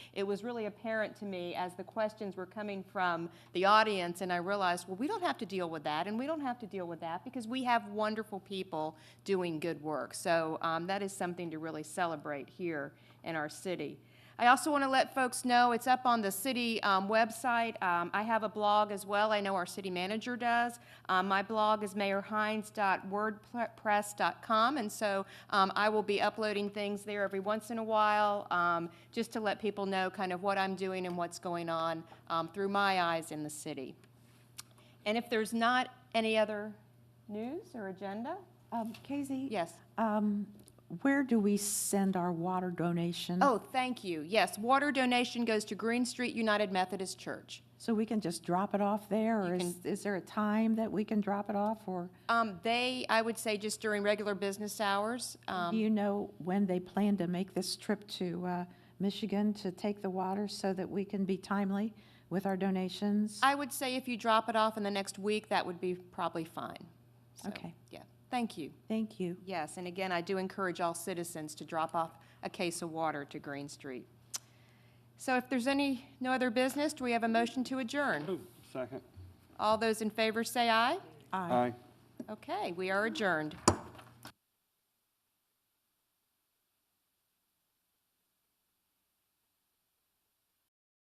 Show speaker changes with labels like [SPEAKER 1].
[SPEAKER 1] it was really apparent to me as the questions were coming from the audience, and I realized, well, we don't have to deal with that, and we don't have to deal with that, because we have wonderful people doing good work. So um, that is something to really celebrate here in our city. I also want to let folks know, it's up on the city um, website. Um, I have a blog as well, I know our city manager does. Um, My blog is mayorhines.wordpress.com, and so um, I will be uploading things there every once in a while, um, just to let people know kind of what I'm doing and what's going on um, through my eyes in the city. And if there's not any other news or agenda,
[SPEAKER 2] Um, Casey?
[SPEAKER 1] yes?
[SPEAKER 2] Um, where do we send our water donation?
[SPEAKER 1] Oh, thank you, yes, water donation goes to Green Street United Methodist Church.
[SPEAKER 2] So we can just drop it off there, or is, is there a time that we can drop it off, or
[SPEAKER 1] Um, they, I would say just during regular business hours.
[SPEAKER 2] do
[SPEAKER 1] Um,
[SPEAKER 2] you know when they plan to make this trip to, uh, Michigan to take the water so that we can be timely with our donations?
[SPEAKER 1] I would say if you drop it off in the next week, that would be probably fine. So,
[SPEAKER 2] Okay.
[SPEAKER 1] Yeah, thank you.
[SPEAKER 2] Thank you.
[SPEAKER 1] Yes, and again, I do encourage all citizens to drop off a case of water to Green Street. So if there's any, no other business, do we have a motion to adjourn?
[SPEAKER 3] Second.
[SPEAKER 1] All those in favor say aye.
[SPEAKER 2] Aye.
[SPEAKER 3] Aye.
[SPEAKER 1] Okay, we are adjourned.